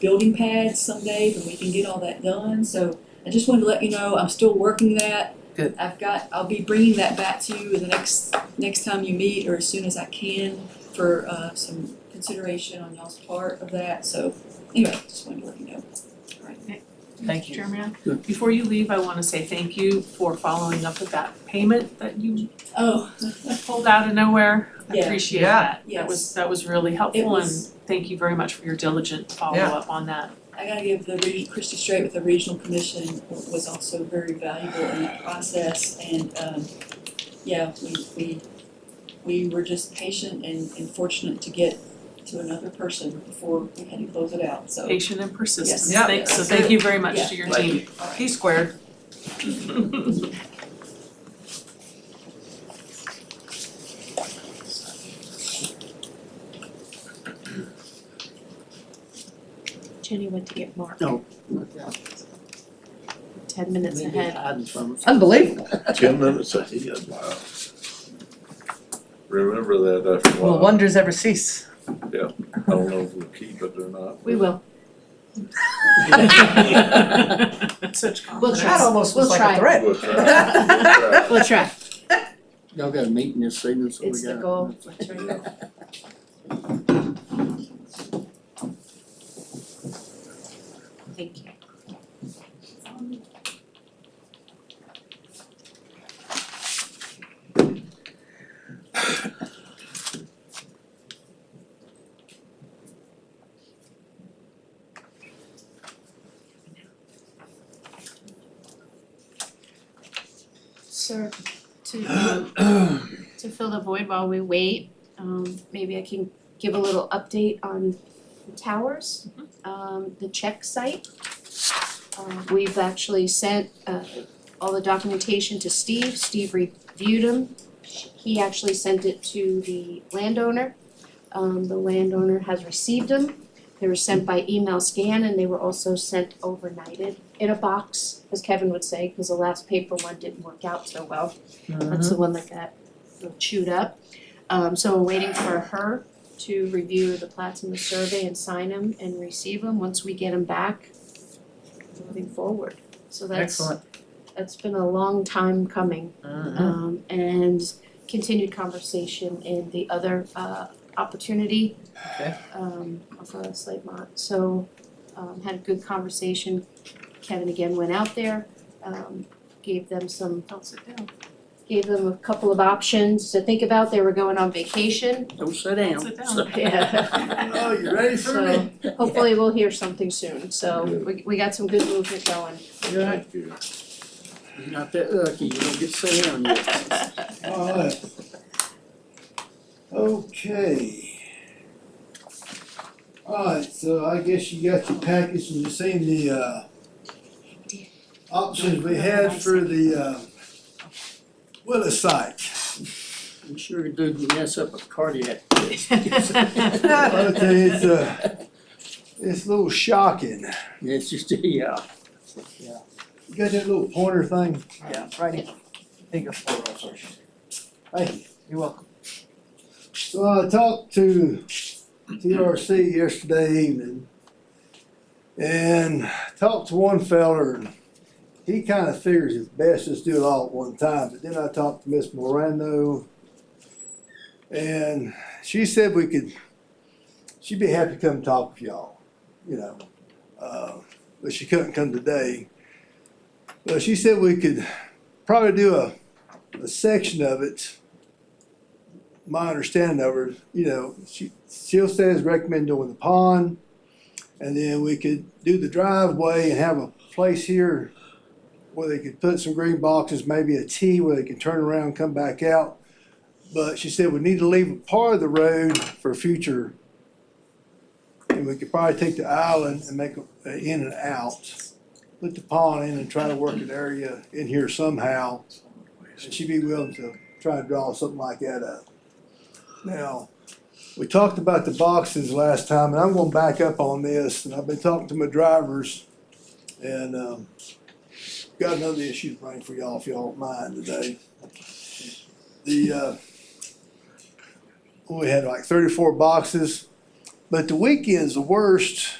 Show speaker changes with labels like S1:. S1: building pads some days and we can get all that done, so I just wanted to let you know, I'm still working that.
S2: Good.
S1: I've got, I'll be bringing that back to you the next, next time you meet or as soon as I can for, uh, some consideration on y'all's part of that, so anyway, just wanted to let you know.
S2: Thank you.
S3: Mr. Chairman,
S2: Good.
S3: before you leave, I wanna say thank you for following up with that payment that you
S1: Oh,
S3: pulled out of nowhere. I
S1: Yeah.
S3: appreciate
S2: Yeah.
S3: that. That was, that was really
S1: it
S3: helpful and
S1: was,
S3: thank you very much for your diligent follow-up on that.
S1: I gotta give the region, Christie Strait with the regional commission was also very valuable in that process and, um, yeah, we, we, we were just patient and, and fortunate to get to another person before we had to close it out, so.
S3: Patient and persistence.
S2: Yeah.
S3: Thanks, so
S1: Yes.
S3: thank you very much
S1: Yeah.
S3: to your
S2: Thank
S3: team.
S1: all right.
S2: P squared.
S4: Jenny went to get Mark ten minutes ahead.
S2: Unbelievable.
S5: Ten minutes ahead, wow. Remember that after a
S2: Will
S5: while,
S2: wonders ever cease?
S5: I don't know if we keep it or not.
S4: We will.
S3: Such confidence.
S4: We'll
S2: That
S4: try.
S2: almost was
S4: We'll
S2: like a
S4: try.
S2: threat.
S5: We'll try. We'll try.
S4: We'll try.
S6: Y'all got a meeting this evening, so we got.
S4: It's the goal. Thank you. Sir, to um, to fill the void while we wait, um maybe I can give a little update on the towers, um the check site. Um we've actually sent uh all the documentation to Steve, Steve reviewed them. He actually sent it to the landowner. Um the landowner has received them. They were sent by email scan and they were also sent overnighted in a box, as Kevin would say, cause the last paper one didn't work out so well. That's the one that got chewed up. Um, so we're waiting for her to review the plats in the survey and sign them and receive them. Once we get them back, moving forward. So that's,
S2: Excellent.
S4: that's been a long time coming
S2: Mhm.
S4: um and continued conversation in the other uh opportunity.
S2: Okay.
S4: Um off of Slate Mont, so um had a good conversation. Kevin again went out there, um gave them some
S3: Don't sit down.
S4: gave them a couple of options to think about. They were going on vacation.
S6: Don't sit
S3: Don't sit down.
S4: Yeah.
S6: Oh, you ready for
S4: So
S6: me?
S4: hopefully we'll hear something soon. So we we got some good movement going.
S6: You're
S5: Thank you.
S6: not that lucky, you don't get to sit down yet.
S5: Alright.
S7: Okay. Alright, so I guess you got your package and you seen the uh options we had for the uh Willis site.
S6: I'm sure it didn't mess up a cardiac.
S7: Okay, it's uh it's a little shocking.
S6: It's just, yeah.
S7: You got that little pointer thing?
S2: Yeah, right here. Bigger for us.
S7: Thank you.
S2: You're welcome.
S7: So I talked to TRC yesterday evening and talked to one feller and he kinda figures it's best just do it all at one time, but then I talked to Miss Morando and she said we could, she'd be happy to come talk with y'all, you know. Uh, but she couldn't come today. But she said we could probably do a, a section of it my understanding of her, you know, she, she'll say is recommend doing the pond. And then we could do the driveway and have a place here where they could put some green boxes, maybe a T where they can turn around, come back out. But she said we need to leave a part of the road for future. And we could probably take the island and make a- a in and out, put the pond in and try to work an area in here somehow. And she'd be willing to try to draw something like that up. Now, we talked about the boxes last time, and I'm gonna back up on this, and I've been talking to my drivers. And, um, got another issue to bring for y'all, if y'all don't mind today. The, uh, we had like thirty-four boxes, but the weekend's the worst